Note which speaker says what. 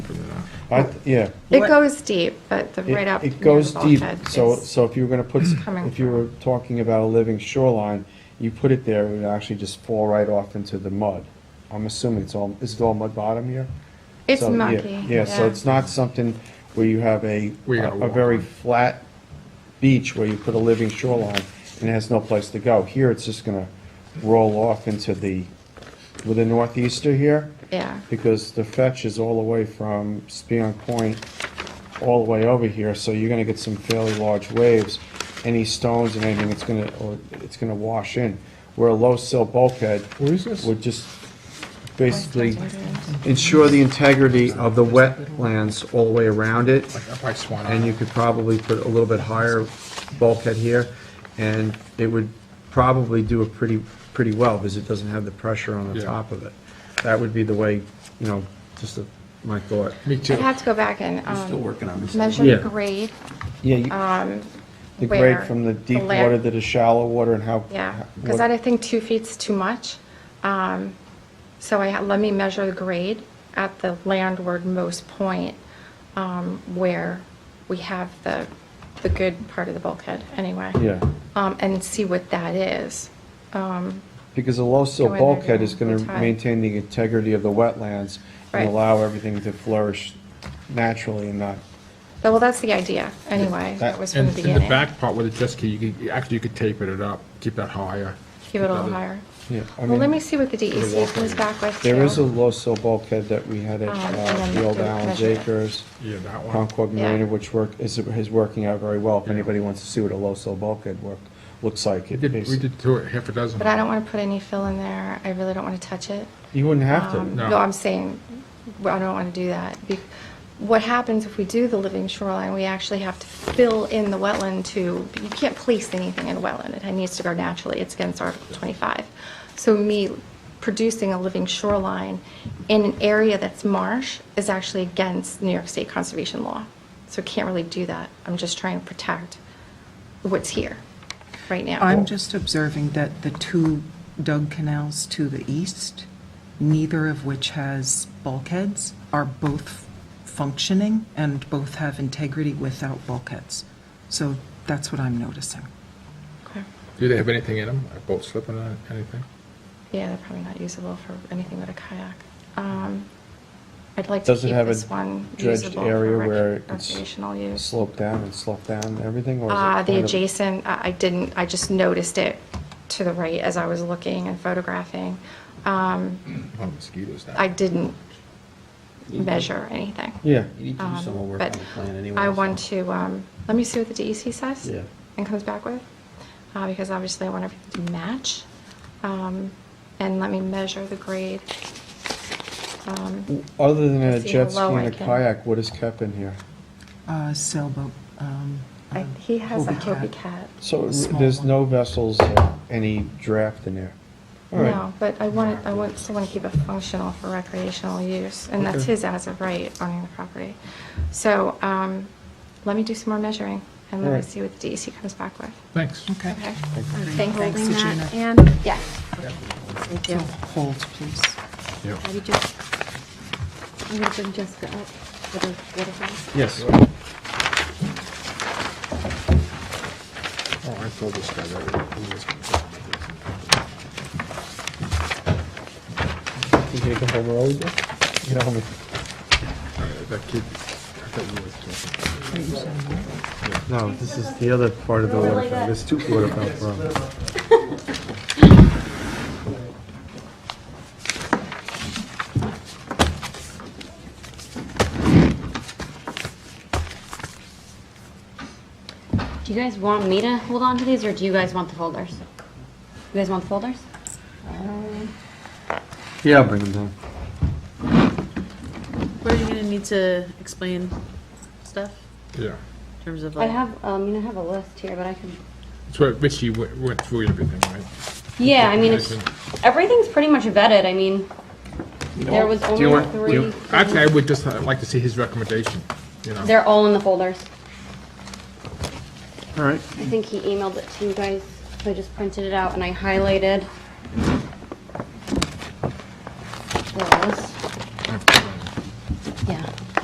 Speaker 1: I, th- yeah.
Speaker 2: It
Speaker 3: What-
Speaker 2: goes deep, but the
Speaker 1: It-
Speaker 2: right up. near
Speaker 1: It
Speaker 2: the
Speaker 1: goes deep,
Speaker 2: bulkhead
Speaker 1: so,
Speaker 2: is-
Speaker 1: so if you were gonna put, s-
Speaker 2: coming
Speaker 1: if you
Speaker 2: from.
Speaker 1: were talking about a living shoreline, you put it there, it would actually just fall right off into the mud. I'm assuming it's all, is it all mud bottom here?
Speaker 2: It's
Speaker 1: So, yeah,
Speaker 2: mucky.
Speaker 1: Yeah, so it's not something where you have a,
Speaker 4: Where you're gonna
Speaker 1: a
Speaker 4: walk
Speaker 1: very
Speaker 4: on.
Speaker 1: flat beach where you put a living shoreline and it has no place to go. Here, it's just gonna roll off into the, with the northeaster here,
Speaker 2: Yeah,
Speaker 1: because the fetch is all the way from Spion Point all the way over here, so you're gonna get some fairly large waves. Any stones and anything, it's gonna, or it's gonna wash in. Where a low sill bulkhead
Speaker 4: Where is this?
Speaker 1: would just basically ensure the integrity of the wetlands all the way around it,
Speaker 4: Up by Swan
Speaker 1: and you
Speaker 4: Island.
Speaker 1: could probably put a little bit higher bulkhead here, and it would probably do it pretty, pretty well, because it doesn't have the pressure on the
Speaker 4: Yeah.
Speaker 1: top of it. That would be the way, you know, just a- my thought.
Speaker 4: Me too.
Speaker 2: I'd have to go back and,
Speaker 5: We're still
Speaker 2: um,
Speaker 5: working on this.
Speaker 2: measure
Speaker 1: Yeah.
Speaker 2: the grade,
Speaker 1: Yeah, you-
Speaker 2: um,
Speaker 1: the
Speaker 2: where
Speaker 1: grade from the deep
Speaker 2: land-
Speaker 1: water to the shallow water and how.
Speaker 2: Yeah,
Speaker 1: how-
Speaker 2: because
Speaker 1: what-
Speaker 2: I think two feet's too much. Um, So I, ha- let me measure the grade at the landwardmost point um, where we have the, the good part of the bulkhead, anyway.
Speaker 1: Yeah.
Speaker 2: Um, And see what that is. Um,
Speaker 1: Because a low sill
Speaker 2: Go in there,
Speaker 1: bulkhead
Speaker 2: yeah,
Speaker 1: is gonna
Speaker 2: it's high.
Speaker 1: maintain the integrity of the wetlands
Speaker 2: Right.
Speaker 1: and allow everything to flourish naturally and not
Speaker 2: but, Well, that's the idea, anyway. That was from
Speaker 4: And
Speaker 2: the
Speaker 4: in the
Speaker 2: beginning.
Speaker 4: back part with the jet ski, you could, actually you could taper it up, keep that higher.
Speaker 2: Keep it a little higher.
Speaker 1: Yeah, I
Speaker 2: Well, let
Speaker 1: mean,
Speaker 2: me see what the DEC comes back with, too.
Speaker 1: There is a low sill bulkhead that we had at
Speaker 2: Um,
Speaker 1: uh,
Speaker 2: and
Speaker 1: the old
Speaker 2: then
Speaker 1: Allen's
Speaker 2: measure it.
Speaker 1: Acres,
Speaker 4: Yeah, that one.
Speaker 1: Concord
Speaker 2: Yeah.
Speaker 1: Marina, which work, is, is working out very well. If anybody wants to see what a low sill bulkhead work, looks like.
Speaker 4: We
Speaker 1: it
Speaker 4: did, we
Speaker 1: is-
Speaker 4: did two, half a dozen.
Speaker 2: But I don't want to put any fill in there. I really don't want to touch it.
Speaker 1: You wouldn't have
Speaker 2: Um,
Speaker 1: to.
Speaker 4: No.
Speaker 2: No, I'm saying, well, I don't want to do that. Be- What happens if we do the living shoreline, we actually have to fill in the wetland to, you can't place anything in a wetland. It needs to go naturally. It's against Article 25. So me producing a living shoreline in an area that's marsh is actually against New York State conservation law. So can't really do that. I'm just trying to protect what's here right now.
Speaker 3: I'm just observing that the two dug canals to the east, neither of which has bulkheads, are both functioning and both have integrity without bulkheads. So that's what I'm noticing.
Speaker 2: Okay.
Speaker 4: Do they have anything in them? A boat slipping or anything?
Speaker 2: Yeah, they're probably not usable for anything but a kayak. Um, I'd like to
Speaker 1: Does
Speaker 2: keep
Speaker 1: it have
Speaker 2: this
Speaker 1: a
Speaker 2: one
Speaker 1: dredged
Speaker 2: usable
Speaker 1: area
Speaker 2: for
Speaker 1: where
Speaker 2: rec-
Speaker 1: it's
Speaker 2: recreational use.
Speaker 1: slope down and slope down and everything? or is it
Speaker 2: Uh, the
Speaker 1: kind of-
Speaker 2: adjacent, I I didn't, I just noticed it to the right as I was looking and photographing. Um,
Speaker 4: Oh, mosquitoes now.
Speaker 2: I didn't measure anything.
Speaker 1: Yeah.
Speaker 5: You need to do
Speaker 2: Um,
Speaker 5: some more work on
Speaker 2: but
Speaker 5: the plan anyway.
Speaker 2: I
Speaker 5: so-
Speaker 2: want to, um, let me see what the DEC says.
Speaker 5: Yeah.
Speaker 2: And comes back with, uh, because obviously I want everything to match. Um, and let me measure the grade. Um,
Speaker 1: Other than a
Speaker 2: Let's see how
Speaker 1: jet ski
Speaker 2: low I
Speaker 1: and a
Speaker 2: can-
Speaker 1: kayak, what is kept in here?
Speaker 3: Uh, Sailboat. um,
Speaker 2: I-
Speaker 3: uh,
Speaker 2: He has a
Speaker 3: Hobie
Speaker 2: Hobie
Speaker 3: Cat.
Speaker 2: Cat.
Speaker 1: So
Speaker 3: A small
Speaker 1: there's
Speaker 3: one.
Speaker 1: no vessels, uh, any draft in there? All right.
Speaker 2: No, but I want, I want, still want to keep it functional for recreational use, and that's
Speaker 1: Okay.
Speaker 2: his as of right owning the property. So, um, let me do some more measuring and let me
Speaker 1: Alright.
Speaker 2: see what the DEC comes back with,
Speaker 4: Thanks.
Speaker 3: Okay.
Speaker 2: okay?
Speaker 6: Thanks,
Speaker 3: Thanks, Regina.
Speaker 6: Holding that, and,
Speaker 2: Yeah.
Speaker 6: thank
Speaker 3: So
Speaker 6: you.
Speaker 3: hold, please.
Speaker 4: Yeah.
Speaker 6: Abby, just, I'm gonna bring Jessica up for the waterfall.
Speaker 1: Yes.
Speaker 4: Oh, I told this guy that. he was gonna-
Speaker 1: You gonna come home early, Dick? You know, I mean-
Speaker 4: That kid, I thought you were talking.
Speaker 1: No, this is the other part of the waterfront, there's two waterfront problems.
Speaker 6: Do you guys want me to hold on to these, or do you guys want the folders? You guys want the folders?
Speaker 1: Yeah, I'll bring them down.
Speaker 7: We're gonna need to explain stuff
Speaker 4: Yeah.
Speaker 7: in terms of
Speaker 6: I
Speaker 7: like.
Speaker 6: have, um, you know, I have a list here, but I can.
Speaker 4: That's where Richie went went through everything, right?
Speaker 6: Yeah, I mean, it's, everything's pretty much vetted, I mean, there was
Speaker 4: Do you
Speaker 6: only
Speaker 4: want, do
Speaker 6: three.
Speaker 4: you- actually, I would just uh, like to see his recommendation, you know?
Speaker 6: They're all in the folders.
Speaker 1: All right.
Speaker 6: I think he emailed it to you guys, so I just printed it out and I highlighted